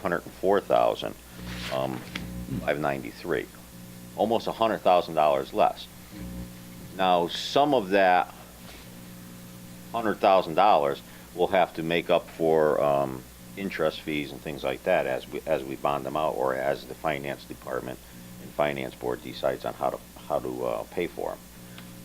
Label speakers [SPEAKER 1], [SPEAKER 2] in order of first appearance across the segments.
[SPEAKER 1] hundred and four thousand, um, five ninety-three. Almost a hundred thousand dollars less. Now, some of that hundred thousand dollars will have to make up for, um, interest fees and things like that as we, as we bond them out or as the finance department and finance board decides on how to, how to, uh, pay for them.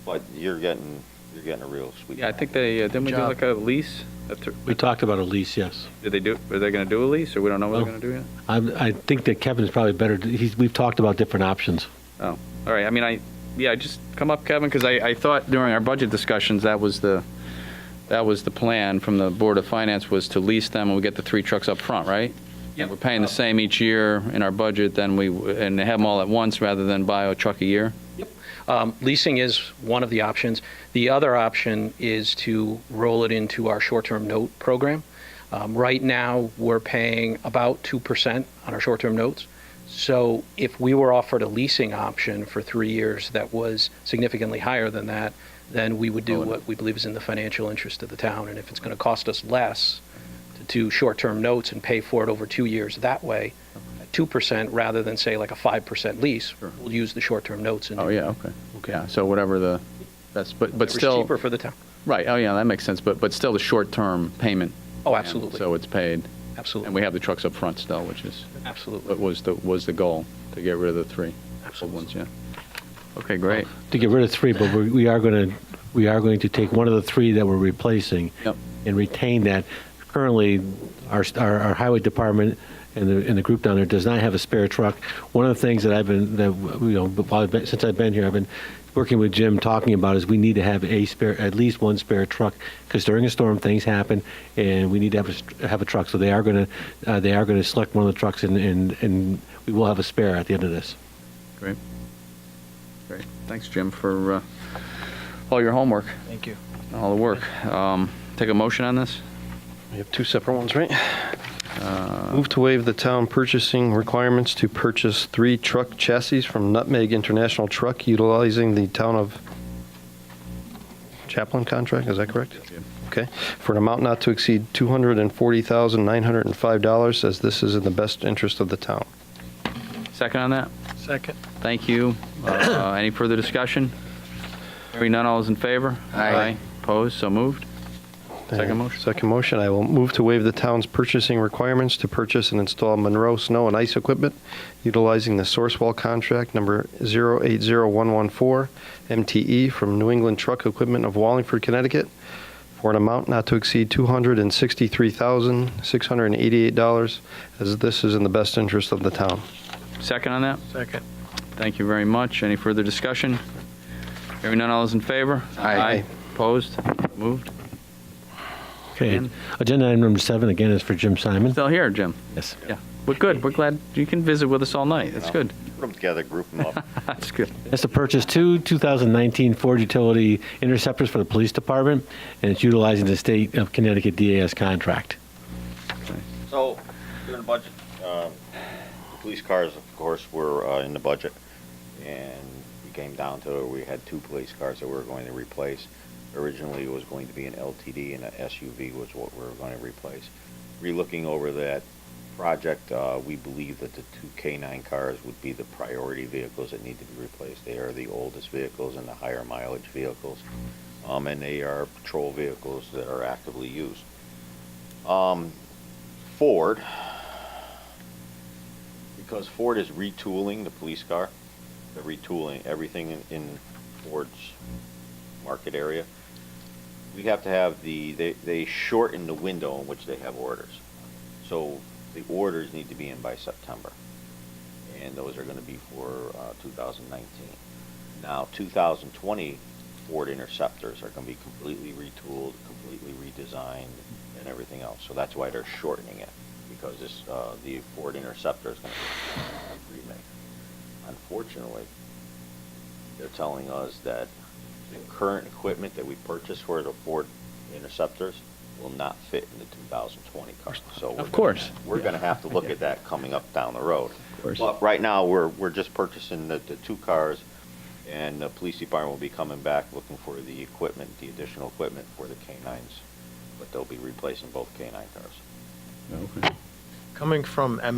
[SPEAKER 1] But you're getting, you're getting a real sweet.
[SPEAKER 2] Yeah, I think they, uh, didn't we do
[SPEAKER 3] job.
[SPEAKER 2] like a lease? A thr-
[SPEAKER 3] We talked about a lease, yes.
[SPEAKER 2] Did they do, are they going to do a lease, or we don't know what they're
[SPEAKER 3] No.
[SPEAKER 2] going to do yet?
[SPEAKER 3] I, I think that Kevin's probably better, he's, we've talked about different options.
[SPEAKER 2] Oh, all right, I mean, I, yeah, just come up, Kevin, because I, I thought during our budget discussions, that was the, that was the plan from the Board of Finance, was to lease them, and we get the three trucks up front, right? Yeah. We're paying the same each year in our budget, then we, and have them all at once, rather than buy a truck a year?
[SPEAKER 4] Um, Leasing is one of the options. The other option is to roll it into our short-term note program. Um, Right now, we're paying about 2% on our short-term notes. So if we were offered a leasing option for three years that was significantly higher than that, then we would do what we believe is in the financial interest of the town. And if it's going to cost us less to do short-term notes and pay for it over two years that way, at 2% rather than, say, like a 5% lease, we'll use the short-term notes and do
[SPEAKER 2] Oh, yeah, okay. Yeah, so whatever the, that's, but, but
[SPEAKER 4] It's
[SPEAKER 2] still.
[SPEAKER 4] cheaper for the town.
[SPEAKER 2] Right, oh, yeah, that makes sense, but, but still the short-term payment.
[SPEAKER 4] Oh,
[SPEAKER 2] plan,
[SPEAKER 4] absolutely.
[SPEAKER 2] So it's paid.
[SPEAKER 4] Absolutely.
[SPEAKER 2] And we have the trucks up front still, which is, what
[SPEAKER 4] Absolutely.
[SPEAKER 2] was the, was the goal, to get rid of the three old
[SPEAKER 4] Absolutely.
[SPEAKER 2] ones, yeah. Oh, Okay, great.
[SPEAKER 3] To get rid of three, but we we are going to, we are going to take one of the three that we're replacing
[SPEAKER 2] Yep.
[SPEAKER 3] and retain that. Currently, our, our our highway department and the, and the group down there does not have a spare truck. One of the things that I've been, that, you know, while I've been- since I've been here, I've been working with Jim, talking about is we need to have a spare, at least one spare truck, because during a storm, things happen, and we need to have a, st- have a truck. So they are going to, uh, they are going to select one of the trucks and, and, and we will have a spare at the end of this.
[SPEAKER 2] Great. Great. Thanks, Jim, for uh, all your homework,
[SPEAKER 5] Thank you.
[SPEAKER 2] all the work. Um, Take a motion on this?
[SPEAKER 5] We have two separate ones, right? Move to waive the town purchasing requirements to purchase three truck chassis from Nutmeg International Truck utilizing the town of Chaplin contract, is that correct? Okay, for an amount not to exceed $240,905, as this is in the best interest of the town.
[SPEAKER 2] Second on that?
[SPEAKER 5] Second.
[SPEAKER 2] Thank you. Uh, Any further discussion? Hearing none, all is in favor? Aye. Opposed, so moved? Second motion.
[SPEAKER 5] Second motion, I will move to waive the town's purchasing requirements to purchase and install Monroe Snow and Ice Equipment utilizing the Sourcewell contract number 080114 MTE E from New England Truck Equipment of Wallingford, Connecticut, for an amount not to exceed $263,688, as this is in the best interest of the town.
[SPEAKER 2] Second on that?
[SPEAKER 5] Second.
[SPEAKER 2] Thank you very much. Any further discussion? Hearing none, all is in favor?
[SPEAKER 5] Aye.
[SPEAKER 2] Opposed? Moved?
[SPEAKER 3] Okay,
[SPEAKER 2] And-
[SPEAKER 3] agenda item number seven, again, is for Jim Simon.
[SPEAKER 2] Still here, Jim?
[SPEAKER 3] Yes.
[SPEAKER 2] Yeah. We're good. We're glad you can visit with us all night. That's good.
[SPEAKER 1] Put them together, group them up.
[SPEAKER 2] That's good.
[SPEAKER 3] That's to purchase two 2019 Ford utility interceptors for the police department, and it's utilizing the state of Connecticut DAS contract.
[SPEAKER 1] So, during the budget, um, the police cars, of course, were uh, in the budget, and we came down to, we had two police cars that we were going to replace. Originally, it was going to be an LTD and an SUV was what we were going to replace. Relooking over that project, uh, we believe that the two K-9 cars would be the priority vehicles that need to be replaced. They are the oldest vehicles and the higher mileage vehicles, um, and they are patrol vehicles that are actively used. Um, Ford, because Ford is retooling the police car, they're retooling everything in, in Ford's market area. We have to have the, they, they shorten the window in which they have orders. So the orders need to be in by September. And those are gonna be for, uh, two thousand nineteen. Now, two thousand twenty Ford Interceptors are gonna be completely retooled, completely redesigned, and everything else. So that's why they're shortening it, because this, uh, the Ford Interceptor is gonna be a remake. Unfortunately, they're telling us that the current equipment that we purchased for the Ford Interceptors will not fit in the 2020 car. So we're
[SPEAKER 2] Of course.
[SPEAKER 1] gonna- We're gonna have to look at that coming up down the road.
[SPEAKER 2] Of course.
[SPEAKER 1] But right now, we're, we're just purchasing the, the two cars, and the police department will be coming back looking for the equipment, the additional equipment for the K-9s. But they'll be replacing both K-9 cars.
[SPEAKER 2] Okay.
[SPEAKER 6] Coming from